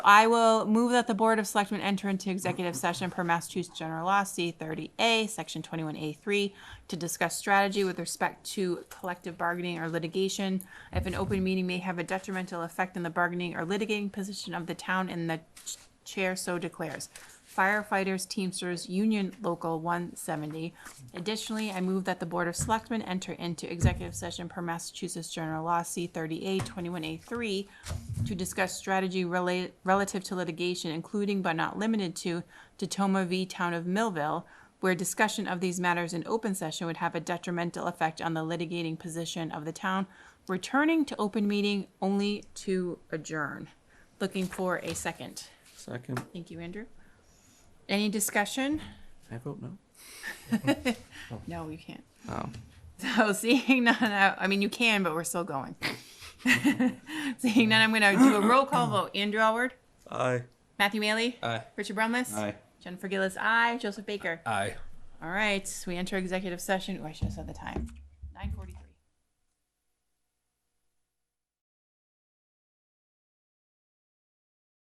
I will move that the Board of Selectmen enter into executive session per Massachusetts General Law C thirty A, section twenty-one A three, to discuss strategy with respect to collective bargaining or litigation. If an open meeting may have a detrimental effect on the bargaining or litigating position of the town and the ch- chair so declares. Firefighters Teamsters Union Local one seventy. Additionally, I move that the Board of Selectmen enter into executive session per Massachusetts General Law C thirty A, twenty-one A three, to discuss strategy rela- relative to litigation, including but not limited to Tatoma v. Town of Millville, where discussion of these matters in open session would have a detrimental effect on the litigating position of the town, returning to open meeting only to adjourn. Looking for a second. Second, Thank you, Andrew. Any discussion? I vote no. No, you can't. Oh. So seeing none, I I mean, you can, but we're still going. Seeing none, I'm gonna do a roll call vote. Andrew Alward, Aye. Matthew Maley. Aye. Richard Brumless. Aye. Jennifer Gillis, aye. Joseph Baker. Aye. All right, we enter executive session. Oh, I should have said the time.